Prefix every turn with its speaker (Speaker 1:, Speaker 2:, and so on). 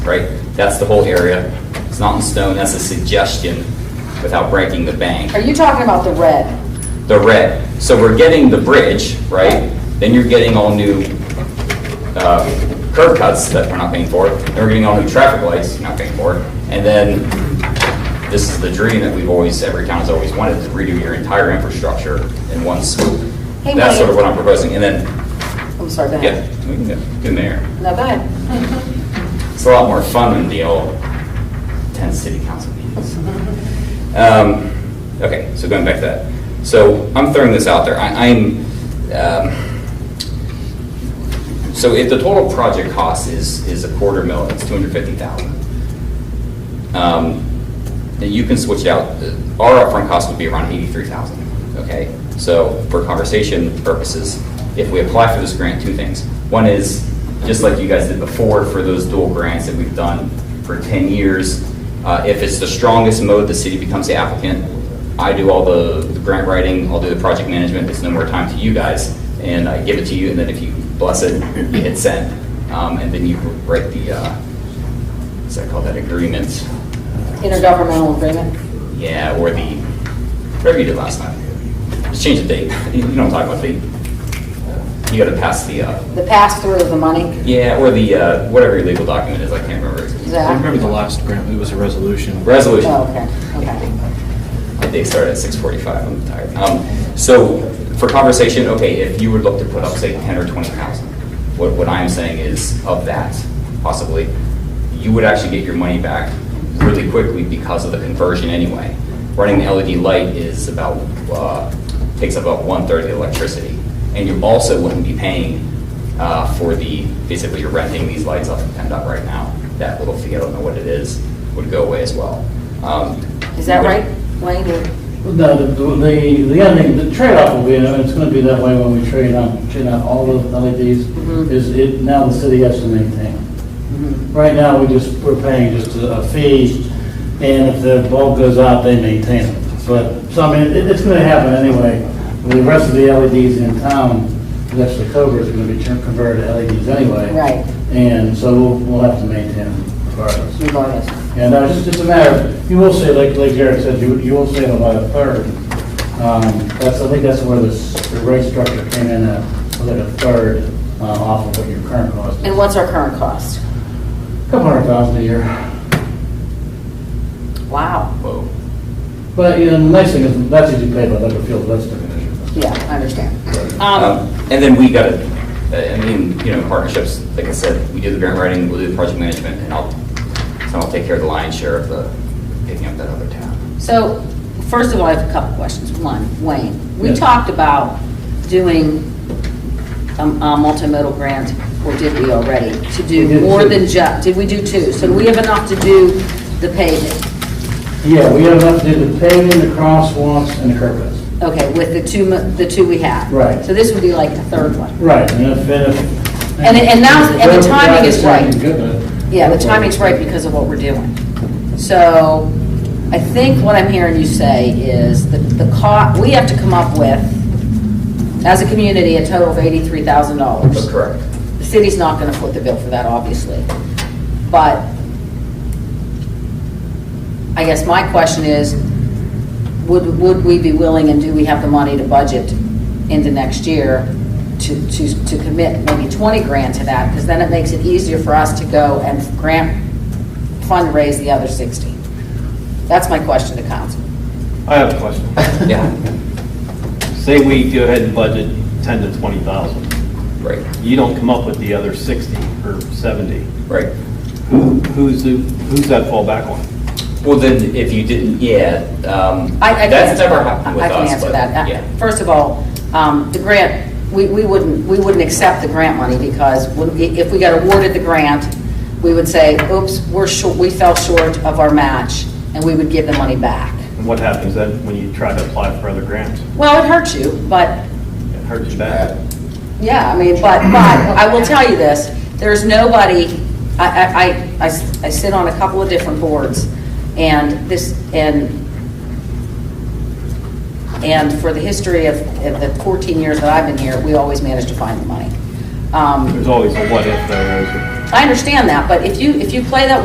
Speaker 1: right? That's the whole area. It's not in stone, that's a suggestion without breaking the bank.
Speaker 2: Are you talking about the red?
Speaker 1: The red, so we're getting the bridge, right? Then you're getting all new uh, curb cuts that we're not paying for, then we're getting all new traffic lights, not paying for, and then this is the dream that we've always, every town's always wanted, to redo your entire infrastructure in one swoop.
Speaker 2: Hey,
Speaker 1: That's sort of
Speaker 2: Mike.
Speaker 1: what I'm proposing, and then
Speaker 2: I'm sorry, go
Speaker 1: yeah,
Speaker 2: ahead.
Speaker 1: we can go in there.
Speaker 2: No, go ahead.
Speaker 1: It's a lot more fun than the old 10 city council meetings. Um, Okay, so going back to that. So I'm throwing this out there. I- I'm, um, so if the total project cost is, is a quarter mil, it's 250,000. um, Then you can switch out, uh, our upfront cost would be around 83,000, okay? So for conversation purposes, if we apply for this grant, two things. One is, just like you guys did before for those dual grants that we've done for 10 years, uh, if it's the strongest mode, the city becomes the applicant. I do all the the grant writing, I'll do the project management, it's no more time to you guys, and I give it to you, and then if you bless it, you hit send. Um, And then you write the, uh, what's that called, that agreement?
Speaker 2: Intergovernmental agreement?
Speaker 1: Yeah, or the, whatever you did last time. Just change the date. You don't talk about date. You gotta pass the, uh,
Speaker 2: The pass-through of the money?
Speaker 1: yeah, or the, uh, whatever your legal document is, I can't remember.
Speaker 2: Zach?
Speaker 3: I remember the last grant, it was a resolution.
Speaker 1: Resolution.
Speaker 2: Oh, okay, okay.
Speaker 1: My day started at 6:45, I'm tired. Um, So, for conversation, okay, if you would look to put up, say, 10 or 20,000, what, what I'm saying is, of that, possibly, you would actually get your money back really quickly because of the conversion anyway. Running the LED light is about, uh, takes up about one-third of the electricity. And you also wouldn't be paying uh, for the, basically, you're renting these lights off of PennDOT right now. That little fee, I don't know what it is, would go away as well. Um,
Speaker 2: Is that right, Wayne? or-
Speaker 4: No, the, the, the other thing, the trade-off will be, and it's gonna be that way when we trade on, trade on all the LEDs,
Speaker 2: Mhm.
Speaker 4: is it, now the city has to maintain. them. Right now, we just, we're paying just a a fee, and if the bulb goes out, they maintain it. But, so I mean, it, it's gonna happen anyway. The rest of the LEDs in town, that's the Cobra, is gonna be turned- converted to LEDs anyway.
Speaker 2: Right.
Speaker 4: And so we'll, we'll have to maintain them regardless.
Speaker 2: Regardless.
Speaker 4: And uh, it's just a matter, of- you will say, like like Jared said, you you will save about a third. Um, That's, I think that's where this, the rate structure came in, at, was like a third uh, off of what your current cost is.
Speaker 2: And what's our current cost?
Speaker 4: Couple hundred thousand a year.
Speaker 2: Wow,
Speaker 1: Whoa.
Speaker 4: But, you know, the nice thing is, that's usually paid by Leather Field, that's the commission.
Speaker 2: yeah, I understand.
Speaker 1: Um,
Speaker 2: Um,
Speaker 1: And then we got to, I mean, you know, partnerships, like I said, we do the grant writing, we'll do the project management, and I'll, so I'll take care of the lion's share of the, picking up that other tab.
Speaker 2: So, first of all, I have a couple questions. One, Wayne, we
Speaker 4: Yes.
Speaker 2: talked about doing a a multimodal grant, or did we already, to
Speaker 4: We
Speaker 2: do
Speaker 4: did
Speaker 2: more
Speaker 4: two.
Speaker 2: than just, did we do two? So we have enough to do the paving?
Speaker 4: Yeah, we have enough to do the paving, the crosswalks, and the curb cuts.
Speaker 2: Okay, with the two, mo- the two we have.
Speaker 4: Right.
Speaker 2: So this would be like the third one.
Speaker 4: Right, and if, and if.
Speaker 2: And- and now- and the
Speaker 4: Whatever
Speaker 2: timing is
Speaker 4: price
Speaker 2: right.
Speaker 4: you give it,
Speaker 2: Yeah, the timing's right because of what we're doing. So I think what I'm hearing you say is that the cost, we have to come up with, as a community, a total of
Speaker 1: But
Speaker 2: $83,000.
Speaker 1: correct.
Speaker 2: The city's not going to foot the bill for that, obviously. But I guess my question is, would, would we be willing and do we have the money to budget into next year to, to, to commit maybe 20 grand to that? Because then it makes it easier for us to go and grant fundraise the other 60. That's my question to council.
Speaker 5: I have a question.
Speaker 1: Yeah,
Speaker 5: Say we go ahead and budget 10 to 20,000.
Speaker 1: right,
Speaker 5: You don't come up with the other 60 or 70.
Speaker 1: right.
Speaker 5: Who, who's, the- who's that fall back on?
Speaker 1: Well, then, if you didn't, yeah, um,
Speaker 2: I- I can
Speaker 1: that's
Speaker 2: answer-
Speaker 1: never happened with
Speaker 2: I
Speaker 1: us.
Speaker 2: can answer
Speaker 1: but,
Speaker 2: that. Uh,
Speaker 1: yeah.
Speaker 2: First of all, um, the grant, we we wouldn't, we wouldn't accept the grant money because when we- if we got awarded the grant, we would say, oops, we're short, we fell short of our match, and we would give the money back.
Speaker 5: And what happens then when you try to apply for other grants?
Speaker 2: Well, it hurts you, but
Speaker 5: It hurts you bad.
Speaker 2: Yeah, I mean, but, but I will tell you this, there's nobody, I, I- I, I s- I sit on a couple of different boards, and this, and, and for the history of, of the 14 years that I've been here, we always manage to find the money. Um,
Speaker 5: There's always a what if though, isn't there?
Speaker 2: I understand that, but if you, if you play that